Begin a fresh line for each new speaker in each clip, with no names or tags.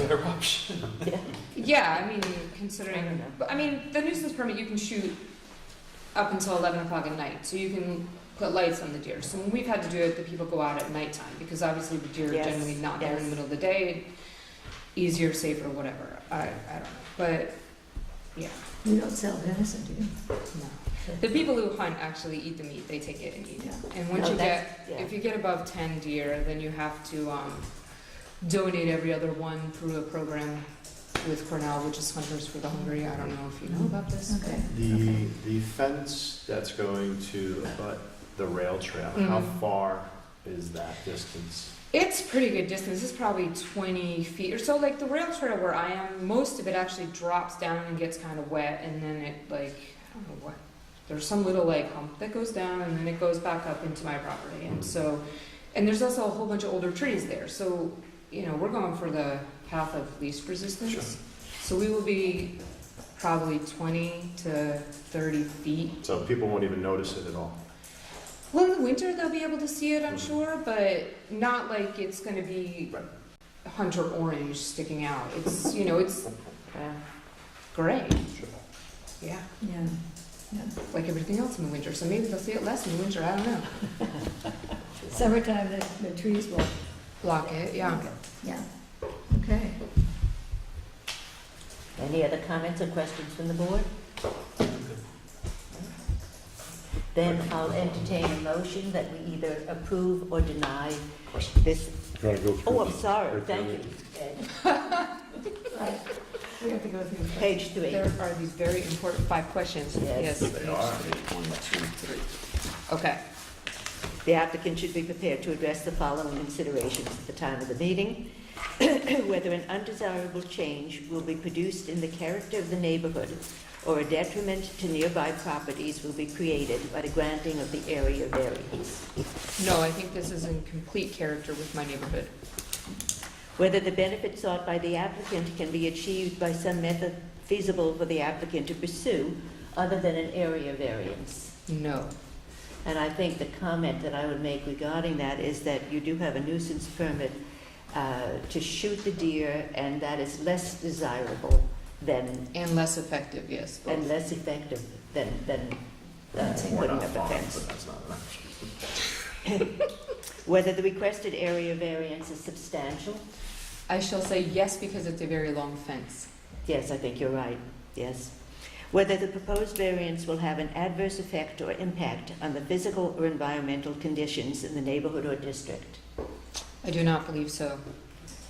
other option.
Yeah, I mean,
I don't
considering,
know.
but I mean, the nuisance permit, you can shoot up until eleven o'clock at night, so you can put lights on the deer. So when we've had to do it, the people go out at nighttime, because obviously the deer are
Yes,
generally not there in the
yes.
middle of the day. Easier, safer, whatever, I, I don't know, but, yeah,
You don't sell venison, do you?
no. The people who hunt actually eat the meat, they take it and eat it. And once
No,
you
that's-
get,
yeah.
if you get above ten deer, then you have to, um, donate every other one through a program with Cornell, which is Hunters for the Hungry. I don't know if you know about this.
Okay.
The, the fence that's going to abut the rail trail, how
Mhm.
far is that distance?
It's pretty good distance. It's probably twenty feet or so. Like the rail trail where I am, most of it actually drops down and gets kind of wet, and then it like I don't know what. There's some little like hump that goes down, and then it goes back up into my property, and so, and there's also a whole bunch of older trees there. So you know we're going for the path of least resistance.
Sure.
So we will be probably twenty to thirty feet
So people won't even notice it at all.
Well, in the winter they'll be able to see it, I'm
Mm-hmm.
sure, but not like it's going to be
Right.
hunter orange sticking out. It's you know it's
Yeah.
gray.
Sure.
Yeah,
Yeah.
like everything else in the winter. So maybe they'll see it less in the winter. I don't know.
Summertime, the, the trees will.
Block it. Yeah.
Mm-hmm.
Yeah. Okay.
Any other comments or questions from the board? Then I'll entertain a motion that we either approve or deny this. Oh, I'm sorry, thank you.
Right. We have to go through. the-
Page three.
There are these very important five questions.
Yes.
They are.
One, two, three.
Okay.
The applicant should be prepared to address the following considerations at the time of the meeting. Whether an undesirable change will be produced in the character of the neighborhood or a detriment to nearby properties will be created by the granting of the area variance.
No, I think this is in complete character with my neighborhood.
Whether the benefit sought by the applicant can be achieved by some method feasible for the applicant to pursue other than an area variance.
No.
And I think the comment that I would make regarding that is that you do have a nuisance permit uh, to shoot the deer, and that is less desirable than,
And less effective. Yes. both.
and less effective than, than uh,
We're
putting
not
up a
fine,
fence.
but that's not an option.
Whether the requested area variance is substantial,
I shall say yes because it's a very long fence.
yes, I think you're right, yes. Whether the proposed variance will have an adverse effect or impact on the physical or environmental conditions in the neighborhood or district.
I do not believe so.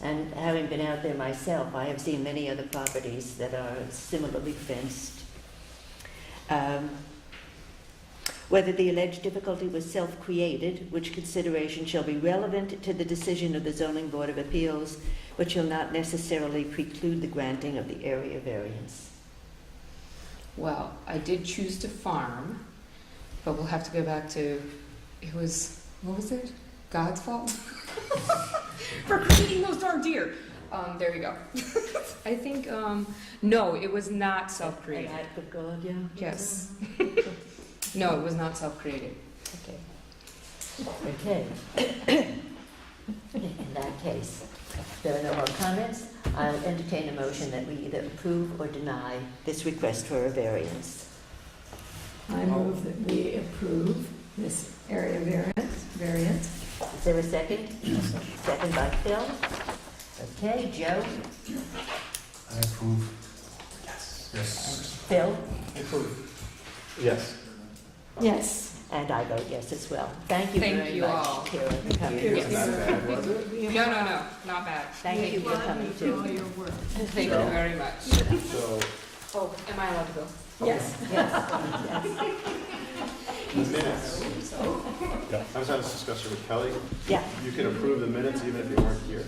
And having been out there myself, I have seen many other properties that are similarly fenced. Um, Whether the alleged difficulty was self-created, which consideration shall be relevant to the decision of the zoning board of appeals, but shall not necessarily preclude the granting of the area variance.
Well, I did choose to farm, but we'll have to go back to it was what was it? God's fault for creating those darn deer. Um, there we go. I think um, no, it was not
An
self-created.
act of God, yeah?
Yes. No, it was not self-created.
Okay. Okay. In that case, there are no more comments. I'll entertain a motion that we either approve or deny this request for a variance.
I move that we approve this area variance, variance.
Is there a second? Second by Phil. Okay, Joe,
I approve. Yes. Yes.
Phil,
I approve.
Yes.
Yes.
and I vote yes as well. Thank you
Thank
very
you
much,
all.
Kira, for coming.
It wasn't that bad, was it?
No, no, no, not bad.
Thank you for coming too.
your work.
Thank you
No.
very much.
So,
Oh, am I allowed to go?
Yes.
Yes, yes.
the minutes. I was having this discussion with Kelly.
Yeah.
You can approve the minutes even if you weren't here.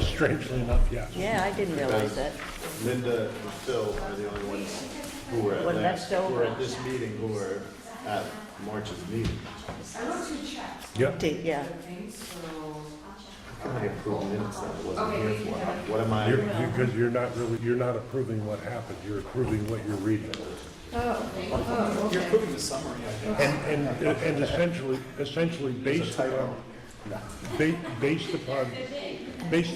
Strangely enough, yeah.
Yeah, I didn't realize that.
Linda and Phil are the only ones who were at
Well,
last,
that's
who were
over.
at this meeting, who were at March's meeting.
Yeah.
How Can I approve minutes that I wasn't here for? What am I?
Because you're not really, you're not approving what happened, you're approving what you're reading.
You're approving the summary, I think.
And, and, and essentially, essentially based upon, ba- based upon, based